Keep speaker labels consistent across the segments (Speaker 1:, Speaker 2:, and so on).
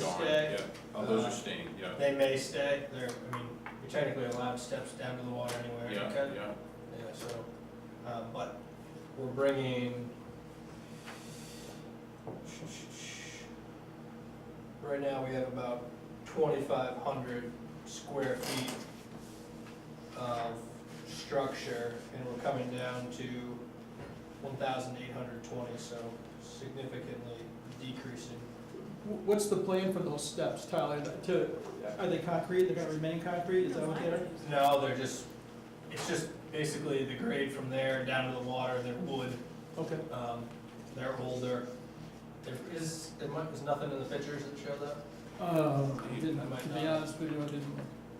Speaker 1: yeah, oh, those
Speaker 2: Uh-huh.
Speaker 1: are staying, yeah,
Speaker 2: They may stay, they're, I mean, we technically allowed steps down to the water anywhere.
Speaker 1: yeah,
Speaker 2: okay?
Speaker 1: yeah,
Speaker 2: Yeah, so, um, but we're bringing. Right now, we have about twenty-five hundred square feet of structure, and we're coming down to one thousand eight hundred twenty, so significantly decreasing.
Speaker 3: Wh- What's the plan for those steps, Tyler? To, are they concrete? They're gonna remain concrete? Is that what they're?
Speaker 2: No, they're just, it's just basically the grade from there down to the water, they're wood,
Speaker 3: Okay,
Speaker 2: Um, they're older. There is, there might, there's nothing in the pictures that show that?
Speaker 3: um, I didn't, to be honest with you, I didn't.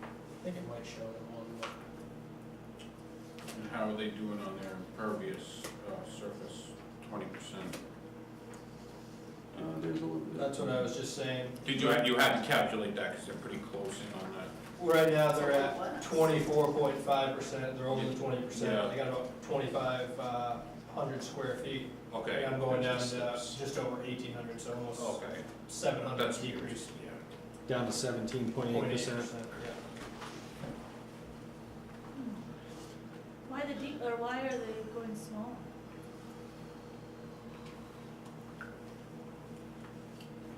Speaker 2: I think it might show it in one, but.
Speaker 1: and how are they doing on their impervious, uh, surface, twenty percent?
Speaker 4: Uh, there's a little bit.
Speaker 2: That's what I was just saying.
Speaker 1: Did you, you had to calculate that, cause they're pretty close in on that,
Speaker 2: Right now, they're at twenty-four point five percent, they're over the twenty
Speaker 1: Yeah.
Speaker 2: percent. They got about twenty-five, uh, hundred square feet.
Speaker 1: okay.
Speaker 2: And I'm going down
Speaker 1: that's
Speaker 2: to
Speaker 1: the steps.
Speaker 2: just over eighteen hundred, so almost
Speaker 1: Okay,
Speaker 2: seven hundred
Speaker 1: that's
Speaker 2: decrease.
Speaker 1: decreased, yeah.
Speaker 5: Down to seventeen point eight percent.
Speaker 2: yeah.
Speaker 6: Why the deep, or why are they going small?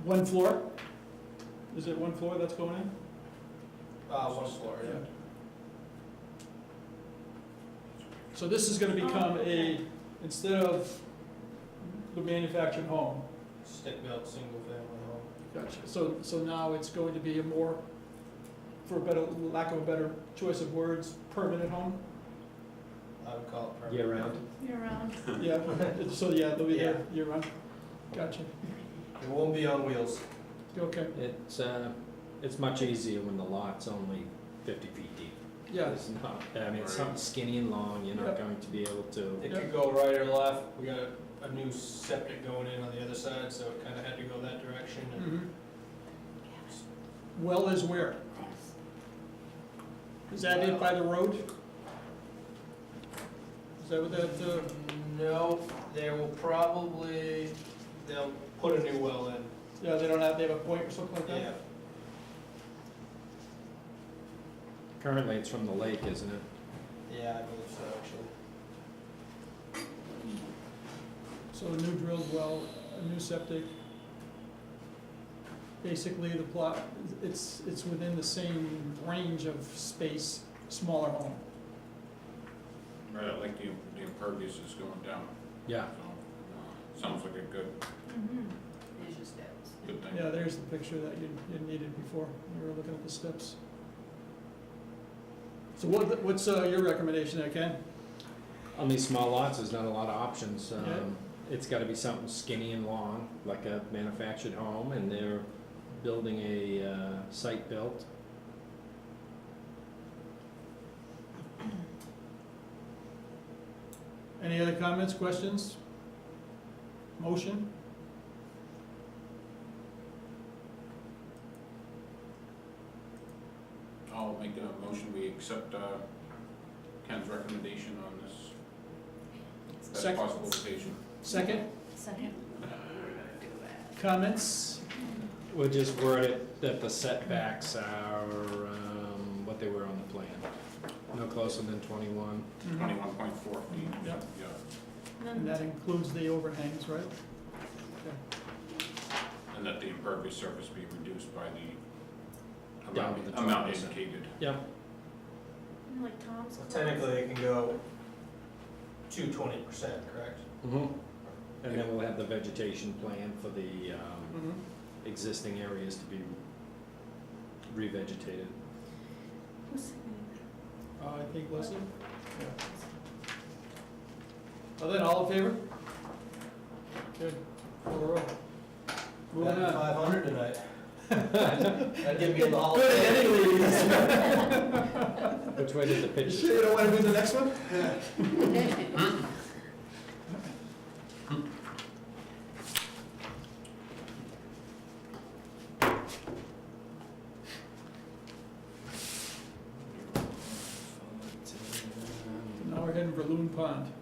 Speaker 3: One floor? Is it one floor that's going in?
Speaker 2: Uh, one floor, yeah.
Speaker 3: So this is gonna become a, instead of the manufactured home,
Speaker 2: Stick-built, single-family home.
Speaker 4: Gotcha.
Speaker 3: so, so now it's going to be a more, for a better, lack of a better choice of words, permanent home?
Speaker 2: I would call it permanent.
Speaker 5: Year round,
Speaker 6: Year round?
Speaker 3: Yeah, so yeah, they'll be there year round. Gotcha,
Speaker 2: It won't be on wheels.
Speaker 3: okay,
Speaker 5: it's, uh, it's much easier when the lot's only fifty feet deep.
Speaker 3: yeah,
Speaker 5: It's not, I mean, it's something skinny and long, you're not
Speaker 3: Yep.
Speaker 5: going to be able to,
Speaker 2: It could go right or left, we got a, a new septic going in on the other side, so it kinda had to go that direction. and-
Speaker 3: Mhm. Well is where? Is that it by the road? Is that what that, uh,
Speaker 2: No, they will probably, they'll put a new well in,
Speaker 3: yeah, they don't have, they have a point or something like that?
Speaker 2: yeah.
Speaker 5: currently it's from the lake, isn't it?
Speaker 2: Yeah, I believe so, actually.
Speaker 3: So a new drilled well, a new septic. Basically, the plot, it's, it's within the same range of space, smaller home.
Speaker 1: Right, I like the, the impervious is going down,
Speaker 5: Yeah,
Speaker 1: so, sounds like a good,
Speaker 6: Mhm.
Speaker 1: good thing.
Speaker 3: Yeah, there's the picture that you, you needed before, you were looking at the steps. So what, what's, uh, your recommendation there, Ken?
Speaker 5: on these small lots, there's not a lot of options,
Speaker 3: Yeah.
Speaker 5: um, it's gotta be something skinny and long, like a manufactured home, and they're building a, uh, site built.
Speaker 3: Any other comments, questions? Motion?
Speaker 1: I'll make a motion, we accept, uh, Ken's recommendation on this, best
Speaker 3: Second.
Speaker 1: possible location.
Speaker 2: Mm-hmm.
Speaker 3: Second?
Speaker 6: Second.
Speaker 3: Comments?
Speaker 5: We'll just word it that the setbacks are, um, what they were on the plan, no closer than twenty-one.
Speaker 1: Twenty-one point four feet.
Speaker 3: Yep.
Speaker 1: Yeah,
Speaker 3: And that includes the overhangs, right?
Speaker 1: and that the impervious surface be reduced by the
Speaker 5: Down
Speaker 1: amount,
Speaker 5: to the
Speaker 1: amount
Speaker 5: 12%.
Speaker 1: indicated.
Speaker 6: Like Tom's.
Speaker 2: So
Speaker 6: class.
Speaker 2: technically, it can go to twenty percent, correct?
Speaker 5: And then we'll have the vegetation plan for the, um, existing areas to be revegetated.
Speaker 6: Who's seconding
Speaker 3: Uh, I think Leslie? Well then, all in favor? Good. Four oh. Moving on.
Speaker 2: Five hundred tonight. That'd give me a lot.
Speaker 3: Good editing, ladies.
Speaker 5: Which way did the
Speaker 3: You
Speaker 5: pitch?
Speaker 3: sure you don't wanna do the next one? Now we're heading for Loon Pond.
Speaker 6: Hmm.